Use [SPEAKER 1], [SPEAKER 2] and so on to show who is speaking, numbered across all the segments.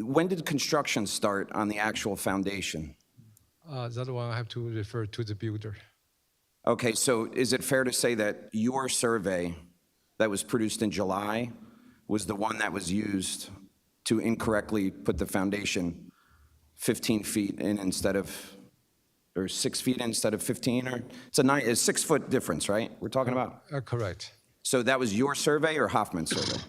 [SPEAKER 1] When did construction start on the actual foundation?
[SPEAKER 2] Uh, That one I have to refer to the builder.
[SPEAKER 1] Okay, so is it fair to say that your survey that was produced in July was the one that was used to incorrectly put the foundation 15 feet in instead of, or six feet instead of 15, or, it's a nine, it's six-foot difference, right, we're talking about?
[SPEAKER 2] Uh, Correct.
[SPEAKER 1] So that was your survey or Hoffman's survey?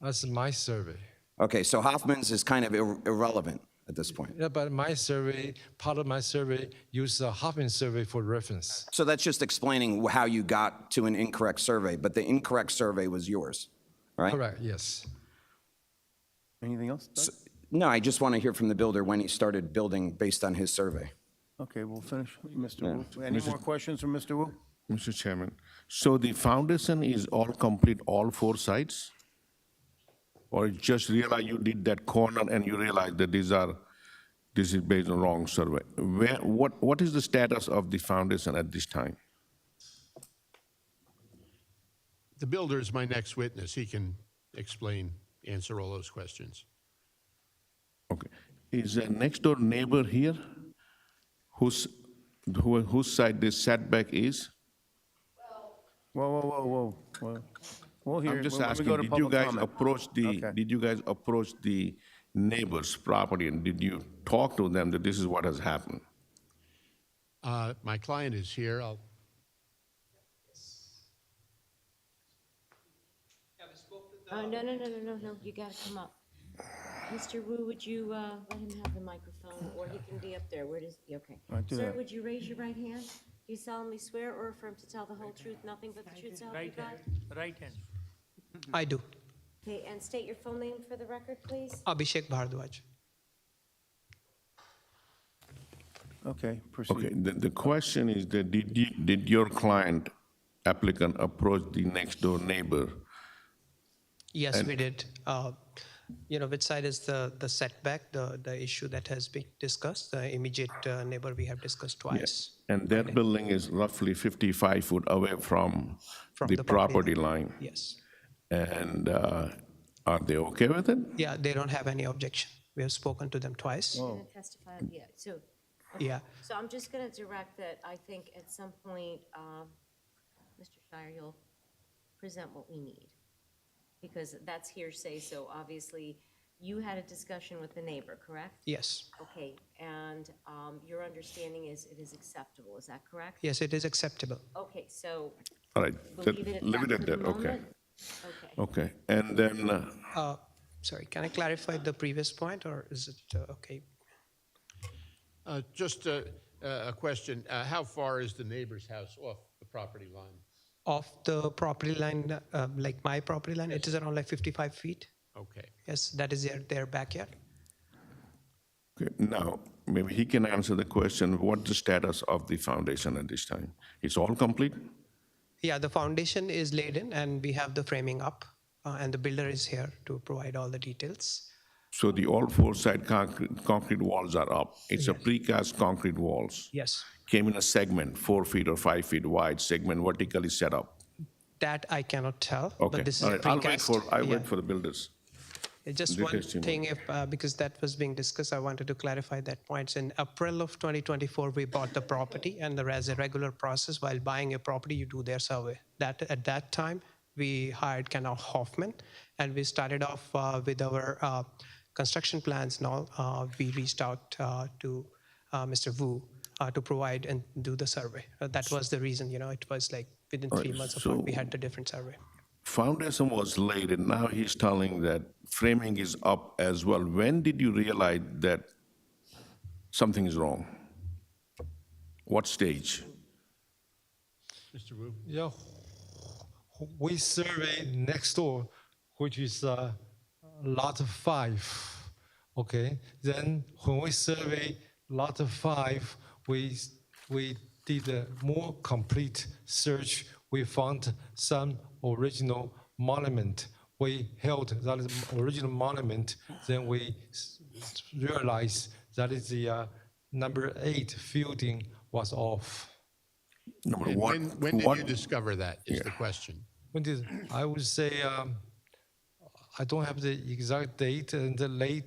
[SPEAKER 2] That's my survey.
[SPEAKER 1] Okay, so Hoffman's is kind of ir- irrelevant at this point.
[SPEAKER 2] Yeah, but my survey, part of my survey, used the Hoffman survey for reference.
[SPEAKER 1] So that's just explaining wh- how you got to an incorrect survey, but the incorrect survey was yours, right?
[SPEAKER 2] Correct, yes.
[SPEAKER 3] Anything else? Doug?
[SPEAKER 1] No, I just want to hear from the builder when he started building based on his survey.
[SPEAKER 3] Okay, we'll finish. Mr. Wu, any more questions from Mr. Wu?
[SPEAKER 4] Mr. Chairman, so the foundation is all complete, all four sides? Or you just realize you did that corner and you realize that these are, this is based on wrong survey? Where, what, what is the status of the foundation at this time?
[SPEAKER 5] The builder is my next witness. He can explain, answer all those questions.
[SPEAKER 4] Okay, is the next door neighbor here? Whose, who, whose side this setback is?
[SPEAKER 3] Whoa, whoa, whoa, whoa, whoa. We'll hear,
[SPEAKER 4] I'm
[SPEAKER 3] it
[SPEAKER 4] just
[SPEAKER 3] when we go
[SPEAKER 4] asking,
[SPEAKER 3] to
[SPEAKER 4] did you
[SPEAKER 3] public
[SPEAKER 4] guys
[SPEAKER 3] comment.
[SPEAKER 4] approach the,
[SPEAKER 3] Okay.
[SPEAKER 4] did you guys approach the neighbor's property and did you talk to them that this is what has happened?
[SPEAKER 5] Uh, My client is here. I'll,
[SPEAKER 6] Oh, no, no, no, no, no, no, you gotta come up. Mr. Wu, would you, uh, let him have the microphone, or he can be up there, where does, yeah, okay.
[SPEAKER 3] All right, do
[SPEAKER 6] Sir,
[SPEAKER 3] that.
[SPEAKER 6] would you raise your right hand? Do you solemnly swear or affirm to tell the whole truth, nothing but the truth, so help you
[SPEAKER 7] Right hand,
[SPEAKER 6] God?
[SPEAKER 7] right hand.
[SPEAKER 8] I do.
[SPEAKER 6] Okay, and state your full name for the record, please.
[SPEAKER 8] Abhishek Bhardwaj.
[SPEAKER 3] Okay, proceed.
[SPEAKER 4] Okay, the, the question is that did, you- did your client applicant approach the next door neighbor?
[SPEAKER 8] Yes, we did. Uh, you know, which side is the, the setback, the, the issue that has been discussed, the immediate uh, neighbor we have discussed twice.
[SPEAKER 4] And that building is roughly 55 foot away from
[SPEAKER 8] From
[SPEAKER 4] the
[SPEAKER 8] the
[SPEAKER 4] property
[SPEAKER 8] property
[SPEAKER 4] line.
[SPEAKER 8] Yes.
[SPEAKER 4] And uh, are they okay with it?
[SPEAKER 8] Yeah, they don't have any objection. We have spoken to them twice.
[SPEAKER 3] Oh.
[SPEAKER 6] You're gonna testify, yeah, so,
[SPEAKER 8] Yeah.
[SPEAKER 6] so I'm just gonna direct that, I think at some point, um, Mr. Shire, you'll present what we need. Because that's hearsay, so obviously, you had a discussion with the neighbor, correct?
[SPEAKER 8] Yes.
[SPEAKER 6] Okay, and um, your understanding is it is acceptable, is that correct?
[SPEAKER 8] Yes, it is acceptable.
[SPEAKER 6] Okay, so
[SPEAKER 4] All right,
[SPEAKER 6] we'll
[SPEAKER 4] that-
[SPEAKER 6] leave it at that.
[SPEAKER 4] leave it
[SPEAKER 6] for
[SPEAKER 4] at
[SPEAKER 6] the
[SPEAKER 4] that, okay.
[SPEAKER 6] moment? Okay.
[SPEAKER 4] Okay, and then, uh,
[SPEAKER 8] Uh, sorry, can I clarify the previous point or is it uh, okay?
[SPEAKER 5] uh, just a a question. Uh, How far is the neighbor's house off the property line?
[SPEAKER 8] Off the property line, uh, like my property line, it is around like 55 feet.
[SPEAKER 5] Okay.
[SPEAKER 8] Yes, that is their, their backyard.
[SPEAKER 4] okay, now, maybe he can answer the question, what's the status of the foundation at this time? It's all complete?
[SPEAKER 8] Yeah, the foundation is laid in and we have the framing up uh, and the builder is here to provide all the details.
[SPEAKER 4] So the all four side concrete, concrete walls are up. It's a precast concrete walls.
[SPEAKER 8] Yes.
[SPEAKER 4] Came in a segment, four feet or five feet wide, segment vertically set up.
[SPEAKER 8] That I cannot tell,
[SPEAKER 4] Okay,
[SPEAKER 8] but this
[SPEAKER 4] all
[SPEAKER 8] is a
[SPEAKER 4] right, I'll wait
[SPEAKER 8] precast.
[SPEAKER 4] for, I
[SPEAKER 8] Yeah.
[SPEAKER 4] wait for the builders.
[SPEAKER 8] Just
[SPEAKER 4] the
[SPEAKER 8] one
[SPEAKER 4] testimony.
[SPEAKER 8] thing, if, uh, because that was being discussed, I wanted to clarify that point. In April of 2024, we bought the property and there is a regular process while buying a property, you do their survey. That, at that time, we hired Canal Hoffman and we started off uh, with our uh, construction plans and all. Uh, We reached out uh, to uh, Mr. Wu uh, to provide and do the survey. Uh, That was the reason, you know, it was like within three months of what we
[SPEAKER 4] so-
[SPEAKER 8] had the different survey.
[SPEAKER 4] Foundation was laid and now he's telling that framing is up as well. When did you realize that something is wrong? What stage?
[SPEAKER 5] Mr. Wu?
[SPEAKER 2] Yeah, we survey next door, which is uh, lot five. Okay, then when we survey lot five, we we did a more complete search. We found some original monument. We held that is original monument. Then we s- s- realized that is the uh, number eight building was off.
[SPEAKER 4] No, but
[SPEAKER 5] And
[SPEAKER 4] what-
[SPEAKER 5] When when did
[SPEAKER 4] what-
[SPEAKER 5] you discover that, is the question?
[SPEAKER 2] When did I would say um, I don't have the exact date and the late